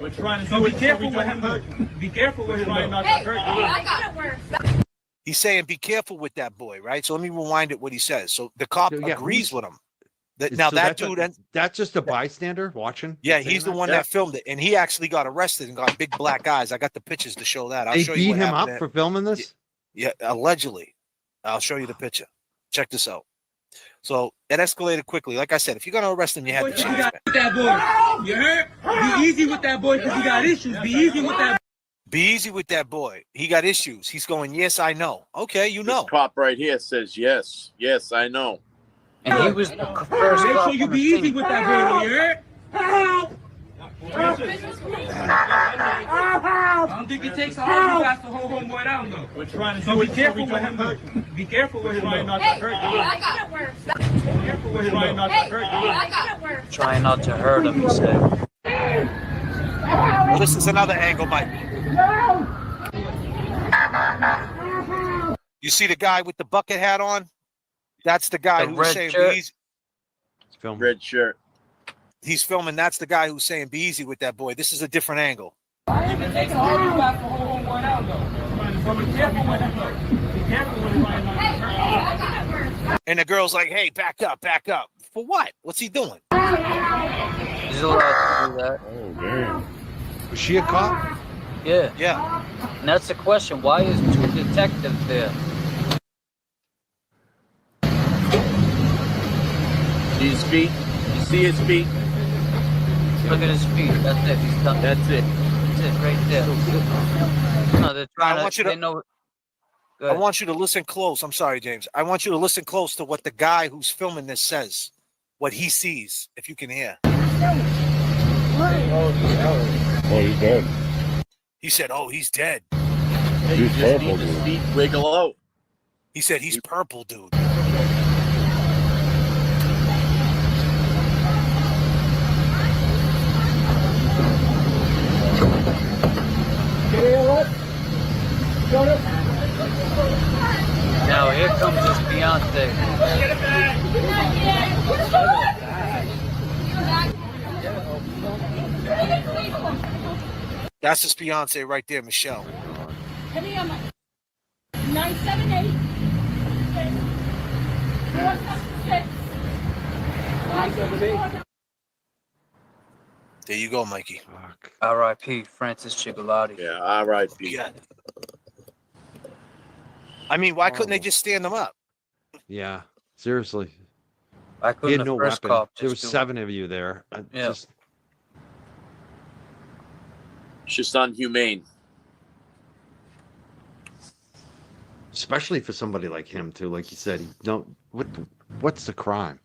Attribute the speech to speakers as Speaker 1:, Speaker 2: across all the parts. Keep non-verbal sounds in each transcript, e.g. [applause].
Speaker 1: We're trying to
Speaker 2: So
Speaker 1: do
Speaker 2: be
Speaker 1: it-
Speaker 2: careful
Speaker 1: we're
Speaker 2: what
Speaker 1: trying to hurt you.
Speaker 2: happens. Be careful what
Speaker 1: We're trying
Speaker 2: happens.
Speaker 1: not to
Speaker 3: Hey,
Speaker 1: hurt you.
Speaker 3: I got it worse.
Speaker 4: He's saying, be careful with that boy, right? So let me rewind it what he says. So the cop
Speaker 5: So, yeah,
Speaker 4: agrees with him. That,
Speaker 5: Is-
Speaker 4: now
Speaker 5: so
Speaker 4: that
Speaker 5: that's a-
Speaker 4: dude, and
Speaker 5: That's just a bystander watching.
Speaker 4: yeah, he's the one
Speaker 5: Yeah.
Speaker 4: that filmed it, and he actually got arrested and got big black eyes. I got the pictures to show that. I'll
Speaker 5: They
Speaker 4: show you
Speaker 5: beat
Speaker 4: what
Speaker 5: him
Speaker 4: happened
Speaker 5: up
Speaker 4: there.
Speaker 5: for filming this.
Speaker 4: Yeah, allegedly. I'll show you the picture. Check this out. So it escalated quickly. Like I said, if you're gonna arrest him, you had
Speaker 2: Boy,
Speaker 4: the
Speaker 2: You
Speaker 4: chance.
Speaker 2: got
Speaker 4: man.
Speaker 2: with that boy. You heard? Be easy with that boy because he got issues. Be easy with that.
Speaker 4: Be easy with that boy. He got issues. He's going, yes, I know. Okay, you know.
Speaker 6: This cop right here says, yes, yes, I know.
Speaker 7: And he was the
Speaker 2: boy.
Speaker 7: first
Speaker 2: Oh. Make
Speaker 7: cop
Speaker 2: sure you
Speaker 7: on
Speaker 2: be
Speaker 7: the
Speaker 2: easy
Speaker 7: scene.
Speaker 2: with that boy. You heard? I don't think it takes all of you guys to hold homeboy down though.
Speaker 1: We're trying to
Speaker 2: So
Speaker 1: do
Speaker 2: be
Speaker 1: it-
Speaker 2: careful
Speaker 1: we're
Speaker 2: what
Speaker 1: trying to hurt you.
Speaker 2: happens. Be careful what
Speaker 1: We're trying
Speaker 2: happens.
Speaker 1: not to
Speaker 3: Hey,
Speaker 1: hurt you.
Speaker 3: I got it worse.
Speaker 1: Be careful what happens. We're trying not to
Speaker 3: Hey,
Speaker 1: hurt
Speaker 3: I got it worse.
Speaker 7: Trying not to hurt him,
Speaker 2: [laughs]
Speaker 7: he said.
Speaker 4: Well, this is another angle, Mike. You see the guy with the bucket hat on? That's the guy
Speaker 7: The
Speaker 4: who's
Speaker 7: red
Speaker 4: saying
Speaker 7: shirt.
Speaker 4: be easy.
Speaker 5: It's filming.
Speaker 6: Red shirt.
Speaker 4: He's filming. That's the guy who's saying be easy with that boy. This is a different angle.
Speaker 2: It takes all of you guys to hold homeboy down though. So be careful what happens. Be careful what happens.
Speaker 3: Hey, I got it worse.
Speaker 4: And the girl's like, hey, back up, back up. For what? What's he doing?
Speaker 7: He's allowed to do that.
Speaker 5: Was she a cop?
Speaker 7: Yeah.
Speaker 4: Yeah.
Speaker 7: And that's the question. Why is two detectives there?
Speaker 6: See his feet? You see his feet?
Speaker 7: Look at his feet. That's it. He's done.
Speaker 6: That's it.
Speaker 7: That's it right there. No, they're trying
Speaker 4: I want
Speaker 7: to.
Speaker 4: you to-
Speaker 7: They know. Go
Speaker 4: I
Speaker 7: ahead.
Speaker 4: want you to listen close. I'm sorry, James. I want you to listen close to what the guy who's filming this says, what he sees, if you can hear.
Speaker 8: Oh, he's dead.
Speaker 4: He said, oh, he's dead.
Speaker 6: Hey, you
Speaker 8: He's
Speaker 6: just
Speaker 8: purple,
Speaker 6: need his
Speaker 8: dude.
Speaker 6: feet wiggle out.
Speaker 4: He said, he's purple, dude.
Speaker 7: Now here comes his fiance.
Speaker 4: That's his fiance right there, Michelle.
Speaker 3: 978
Speaker 4: There you go, Mikey.
Speaker 5: Fuck.
Speaker 7: R.I.P. Francis Chigalotti.
Speaker 6: Yeah, all right, Pete.
Speaker 4: Yeah. I mean, why couldn't they just stand him up?
Speaker 5: Yeah, seriously.
Speaker 7: I
Speaker 5: He
Speaker 7: couldn't
Speaker 5: had
Speaker 7: have
Speaker 5: no
Speaker 7: first
Speaker 5: weapon.
Speaker 7: cop.
Speaker 5: There was
Speaker 7: just do it.
Speaker 5: seven of you there. I
Speaker 7: Yeah.
Speaker 5: just-
Speaker 6: It's just unhumane.
Speaker 5: especially for somebody like him too. Like you said, he don't. What? What's the crime?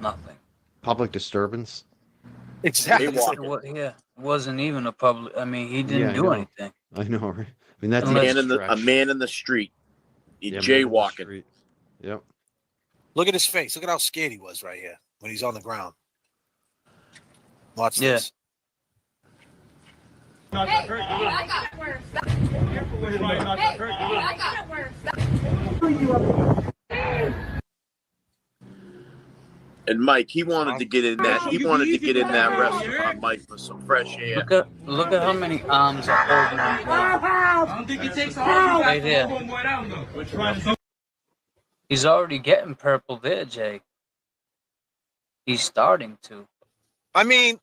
Speaker 7: Nothing.
Speaker 5: Public disturbance. [laughs]
Speaker 4: Exactly.
Speaker 6: They walk.
Speaker 7: It wa- yeah, it wasn't even a public. I mean, he
Speaker 5: Yeah,
Speaker 7: didn't
Speaker 5: I
Speaker 7: do
Speaker 5: know.
Speaker 7: anything.
Speaker 5: I know. Right? I mean, that's
Speaker 6: A
Speaker 5: even
Speaker 7: Unless-
Speaker 6: man in the, a
Speaker 5: stretch.
Speaker 6: man in the street. He
Speaker 5: Yeah, man in the
Speaker 6: jaywalking.
Speaker 5: street. Yep.
Speaker 4: Look at his face. Look at how scared he was right here when he's on the ground. Watch
Speaker 7: Yeah.
Speaker 4: this.
Speaker 1: you. Not to
Speaker 3: Hey,
Speaker 1: hurt you.
Speaker 3: I got it worse.
Speaker 1: Be careful what happens. Not to
Speaker 3: Hey,
Speaker 1: hurt you.
Speaker 3: I got it worse.
Speaker 6: And Mike, he wanted to get in that. He wanted to get in that restaurant, Mike, for some fresh air.
Speaker 7: Look at look at how many arms are holding him down.
Speaker 2: I don't think it takes all of you guys
Speaker 7: Right
Speaker 2: to
Speaker 7: there.
Speaker 2: hold homeboy down though.
Speaker 1: We're trying to do
Speaker 7: He's already getting purple there, Jay. He's starting to.
Speaker 4: I mean,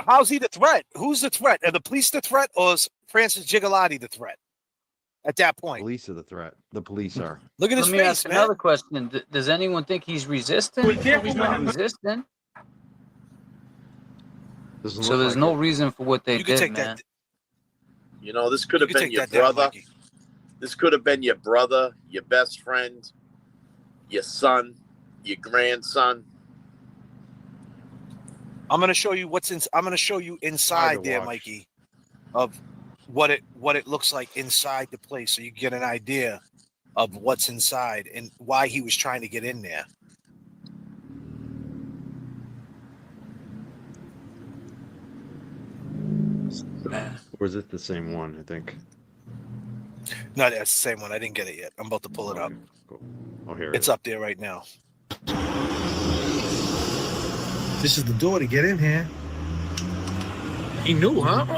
Speaker 4: how's he the threat? Who's the threat? Are the police the threat or is Francis Gigalotti the threat at that point?
Speaker 5: Police are the threat. The
Speaker 6: [laughs]
Speaker 5: police are.
Speaker 4: Look at
Speaker 7: Let
Speaker 4: his
Speaker 7: me
Speaker 4: face,
Speaker 7: ask
Speaker 4: man.
Speaker 7: another question. D- Does anyone think he's resisting?
Speaker 2: We can't-
Speaker 7: He's not resisting.
Speaker 5: Doesn't
Speaker 7: So
Speaker 5: look
Speaker 7: there's
Speaker 5: like
Speaker 7: no
Speaker 5: it.
Speaker 7: reason for what they
Speaker 4: You can
Speaker 7: did,
Speaker 4: take
Speaker 7: man.
Speaker 4: that.
Speaker 6: You know, this could
Speaker 4: You
Speaker 6: have
Speaker 4: can
Speaker 6: been
Speaker 4: take
Speaker 6: your
Speaker 4: that down,
Speaker 6: brother.
Speaker 4: Mikey.
Speaker 6: This could have been your brother, your best friend, your son, your grandson.
Speaker 4: I'm gonna show you what's in. I'm gonna show you inside there,
Speaker 5: watch.
Speaker 4: Mikey, of what it what it looks like inside the place, so you get an idea of what's inside and why he was trying to get in there.
Speaker 7: Man,
Speaker 5: Or is it the same one? I think.
Speaker 4: No, that's the same one. I didn't get it yet. I'm about to pull it up.
Speaker 5: Cool. Oh, here
Speaker 4: It's
Speaker 5: it
Speaker 4: up there right now.
Speaker 9: This is the door to get in here. He knew, huh?